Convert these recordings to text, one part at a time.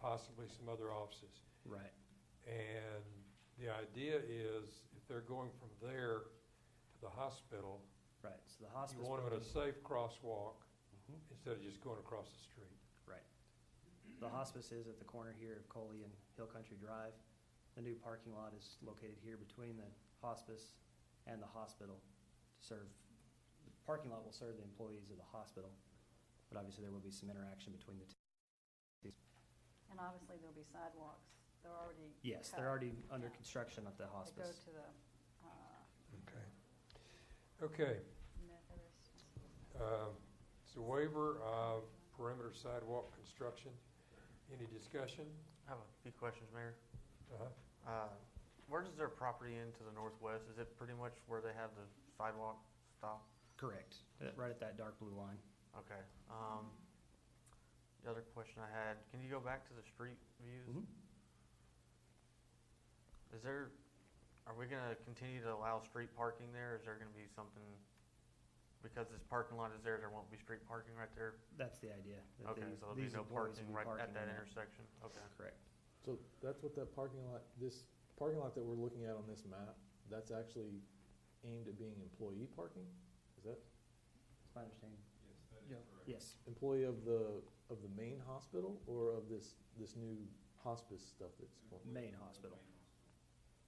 possibly some other offices. Right. And the idea is, if they're going from there to the hospital, Right, so the you hospice. want them at a building- safe crosswalk Mm-hmm. instead of just going across the street. Right. The hospice is at the corner here of Coley and Hill Country Drive. The new parking lot is located here between the hospice and the hospital to serve, the parking lot will serve the employees of the hospital, but obviously there will be some interaction between the two. And obviously, there'll be sidewalks. They're already. Yes, cut. they're already under Yeah. construction at the They go hospice. to the, uh, Okay. Okay, Methodist. um, it's a waiver of perimeter sidewalk construction. Any discussion? I have a few questions, Mayor. Uh-huh. Uh, Where does their property end to the northwest? Is it pretty much where they have the sidewalk stop? Correct, Uh, right at that dark blue line. Okay. um, The other question I had, can you go back to the street Mm-hmm. views? Is there, are we going to continue to allow street parking there? Is there going to be something, because this parking lot is there, there won't be street parking right there? That's the idea. that Okay, these- so there'll be these no employees parking will be right at parking that in intersection? Okay. Correct. So that's what that parking lot, this parking lot that we're looking at on this map, that's actually aimed at being employee parking? Is that That's my understanding. Yes, that Yeah. is correct. Yes, employee of the, of the main hospital or of this, this new hospice stuff that's going? main hospital.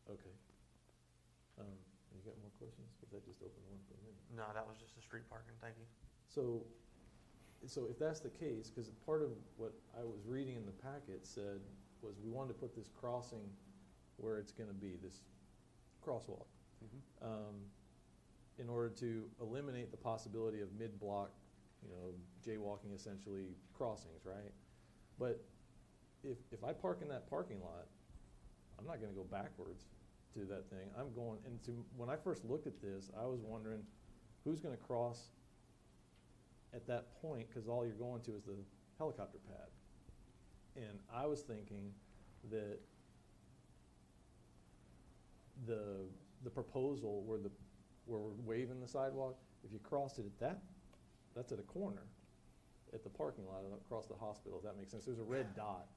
Okay. Um, you got more questions? Because I just opened one for a minute. No, that was just the street parking. Thank you. So, so if that's the case, because part of what I was reading in the packet said was we wanted to put this crossing where it's gonna be, this crosswalk. um, in order to eliminate the possibility of mid-block, you know, jaywalking essentially crossings, right? But if, if I park in that parking lot, I'm not gonna go backwards to that thing. I'm going, and to, when I first looked at this, I was wondering, who's gonna cross at that point? Cause all you're going to is the helicopter pad. And I was thinking that the, the proposal where the, where we're waving the sidewalk, if you crossed it at that, that's at a corner, at the parking lot and across the hospital, if that makes sense. There's a red dot.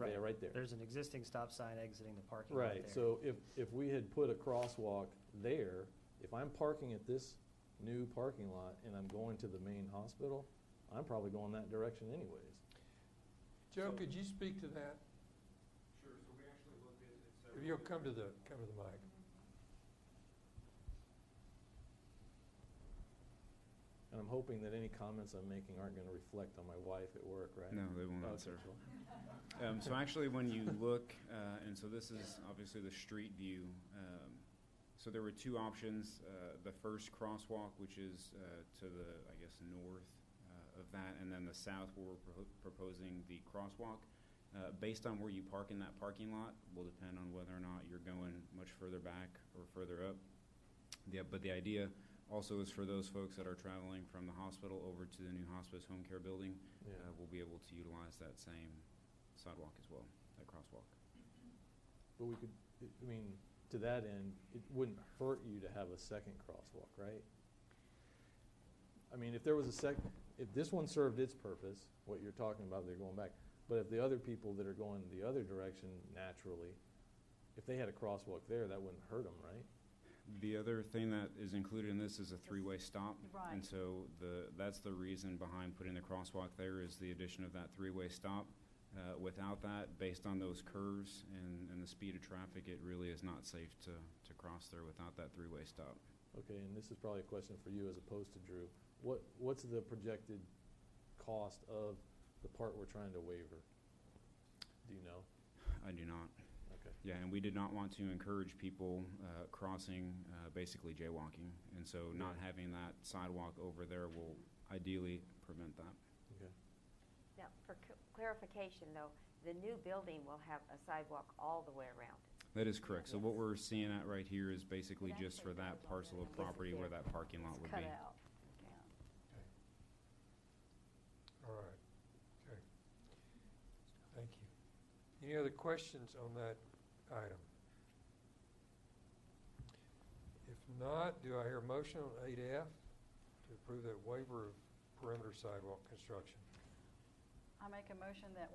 Yeah, right there. There's an existing stop sign exiting the parking lot there. Right, so if, if we had put a crosswalk there, if I'm parking at this new parking lot and I'm going to the main hospital, I'm probably going that direction anyways. Joe, could you speak to that? Sure, so we actually looked at it several. If you'll come to the, come to the mic. And I'm hoping that any comments I'm making aren't gonna reflect on my wife at work, right? No, they won't, Okay, sir. cool. Um, so actually, when you look, uh, and so this is obviously the street view. Um, so there were two options. Uh, the first crosswalk, which is uh, to the, I guess, north uh, of that, and then the south, where we're pro- proposing the crosswalk. Uh, based on where you park in that parking lot, will depend on whether or not you're going much further back or further up. Yeah, but the idea also is for those folks that are traveling from the hospital over to the new hospice home care building, Yeah. uh, we'll be able to utilize that same sidewalk as well, that crosswalk. But we could, I mean, to that end, it wouldn't hurt you to have a second crosswalk, right? I mean, if there was a sec, if this one served its purpose, what you're talking about, they're going back, but if the other people that are going the other direction naturally, if they had a crosswalk there, that wouldn't hurt them, right? The other thing that is included in this is a three-way stop. Right. And so the, that's the reason behind putting the crosswalk there is the addition of that three-way stop. Uh, Without that, based on those curves and, and the speed of traffic, it really is not safe to, to cross there without that three-way stop. Okay, and this is probably a question for you as opposed to Drew. What, what's the projected cost of the part we're trying to waiver? Do you know? I do not. Okay. Yeah, and we did not want to encourage people uh, crossing, uh, basically jaywalking. And so not having that sidewalk over there will ideally prevent that. Okay. Now, for c- clarification, though, the new building will have a sidewalk all the way around. That is correct. So what Yes. we're seeing at right here is basically It just for actually that goes on parcel there. of property where that parking lot It's would cut be. out. Yeah. All right, okay. Thank you. Any other questions on that item? If not, do I hear a motion on 8F to approve that waiver of perimeter sidewalk construction? I make a motion that